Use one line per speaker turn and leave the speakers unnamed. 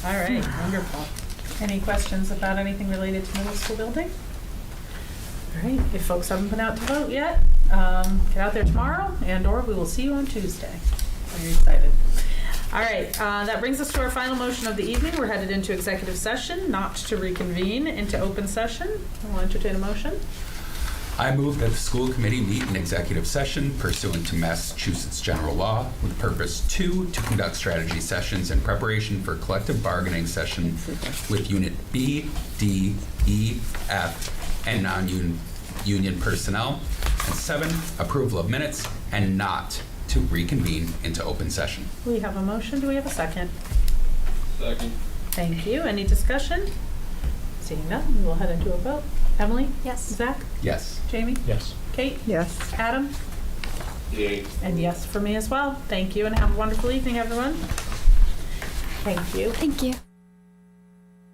All right, wonderful. Any questions about anything related to middle school building? All right, if folks haven't been out to vote yet, um, get out there tomorrow and/or we will see you on Tuesday. Very excited. All right, uh, that brings us to our final motion of the evening. We're headed into executive session, not to reconvene into open session. I'll entertain a motion.
I move that the school committee meet in executive session pursuant to Massachusetts general law with purpose two, to conduct strategy sessions in preparation for collective bargaining session with unit B, D, E, F, and non-union personnel. And seven, approval of minutes and not to reconvene into open session.
We have a motion. Do we have a second?
Second.
Thank you. Any discussion? Seeing none, we'll head into a vote. Emily?
Yes.
Zach?
Yes.
Jamie?
Yes.
Kate?
Yes.
Adam?
Yay.
And yes for me as well. Thank you and have a wonderful evening, everyone. Thank you.
Thank you.